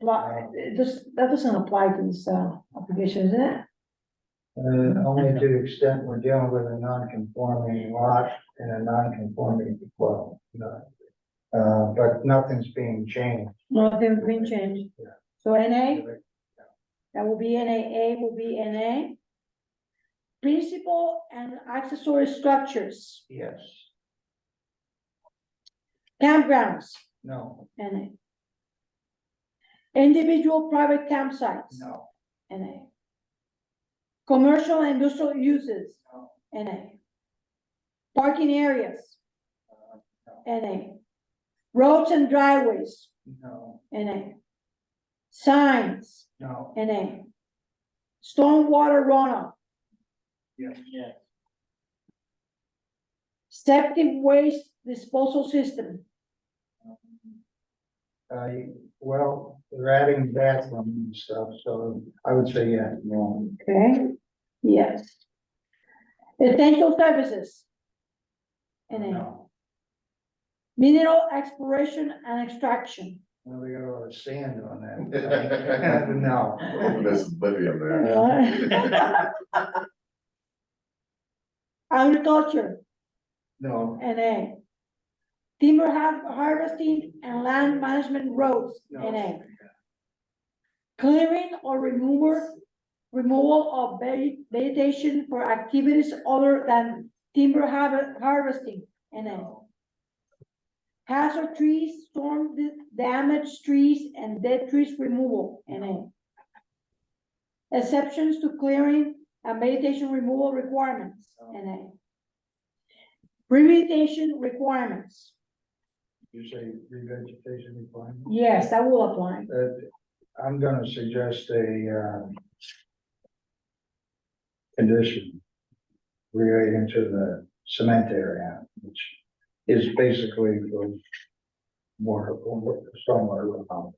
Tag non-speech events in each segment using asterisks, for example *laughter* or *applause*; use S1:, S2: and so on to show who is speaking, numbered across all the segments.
S1: Lot, it just, uh, that doesn't apply to this, uh, application, is it?
S2: Uh, only to the extent we're dealing with a non-conforming lot and a non-conforming well. no. Uh, but nothing's being changed.
S1: Nothing's been changed.
S2: Yeah.
S1: So NA, that will be NA, A will be NA. Principal and accessory structures,
S2: Yes,
S1: campgrounds,
S2: no,
S1: NA. Individual private campsites,
S2: no,
S1: NA. Commercial and industrial uses,
S2: no,
S1: NA. Parking areas,
S2: uh,
S1: NA. Roads and driveways,
S2: no,
S1: NA. Signs,
S2: no,
S1: NA. Stormwater runoff,
S2: yes, yes,
S1: septic waste disposal system,
S2: Uh, well, they're adding bathroom and stuff, so I would say, yeah, no.
S1: okay? Yes. Essential services. NA.
S2: No,
S1: Mineral exploration and extraction.
S2: well, we got a lot of sand on that. No.
S3: There's lithium there.
S1: *laughs* Agriculture,
S2: No,
S1: NA. Timber har- harvesting and land management roads, NA.
S2: no,
S1: Clearing or remover, removal of ve- vegetation for activities other than timber har- harvesting, NA.
S2: no,
S1: Hazard trees, storm di- damaged trees, and dead trees removal, NA. Exceptions to clearing and vegetation removal requirements, NA. Remediation requirements,
S2: you say revegetation requirement?
S1: yes, that will apply.
S2: that I'm gonna suggest a, um, condition relating to the cement area, which is basically for more, stormwater. runoff.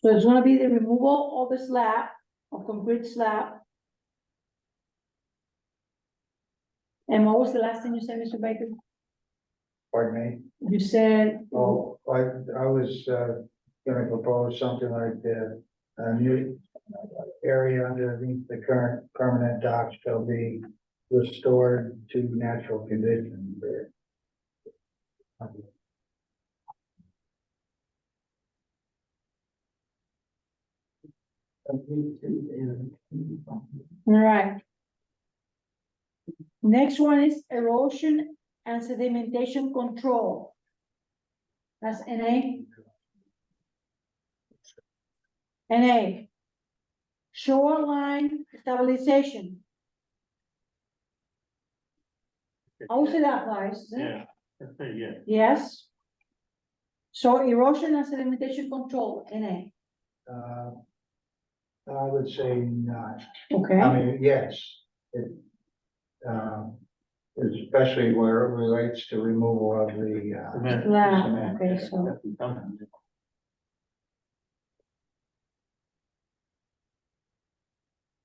S1: So it's gonna be the removal of the slab, of concrete slab. And what was the last thing you said, Mr. Baker?
S2: Pardon
S1: You said.
S2: me? Oh, I, I was, uh, gonna propose something like the, a new area underneath the current permanent dock shall be restored to natural condition there.
S1: All right. Next one is erosion and sedimentation control. That's NA. NA. Shoreline stabilization. I would say that applies, isn't it?
S4: Yeah, that's pretty good.
S1: Yes. So erosion and sedimentation control, NA,
S2: Uh, I would say not. I
S1: okay?
S2: mean, yes, it, um, especially where it relates to removal of the,
S4: Cement.
S2: uh,
S1: Yeah,
S2: cement.
S1: okay, so,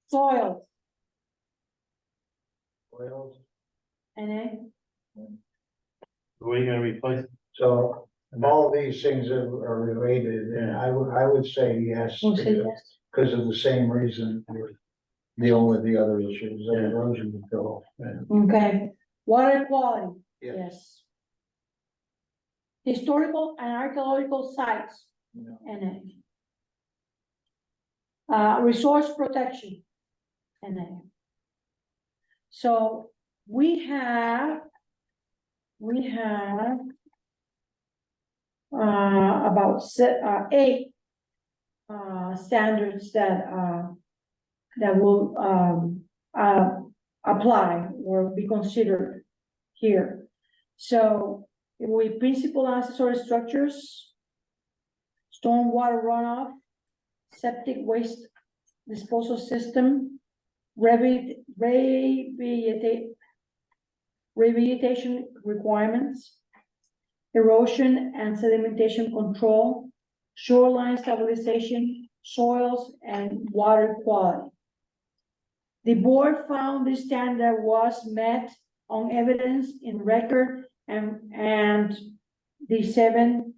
S1: soil,
S2: Oils.
S1: NA.
S4: Where you gonna replace? it?
S2: So all these things are, are related, and I would, I would say yes,
S1: We'll say yes.
S2: because of the same reason we're dealing with the other issues, the
S4: Yeah.
S2: erosion control.
S1: Okay, water quality,
S2: Yeah.
S1: yes. Historical and archaeological sites,
S2: you know.
S1: NA. Uh, resource protection, NA. So we have, we have uh, about se- uh, eight uh, standards that uh, that will um, uh, apply or be considered here. So we principal accessory structures, stormwater runoff, septic waste disposal system, revit, revita- rehabilitation requirements, erosion and sedimentation control, shoreline stabilization, soils and water quality. The board found this standard was met on evidence in record and, and the seven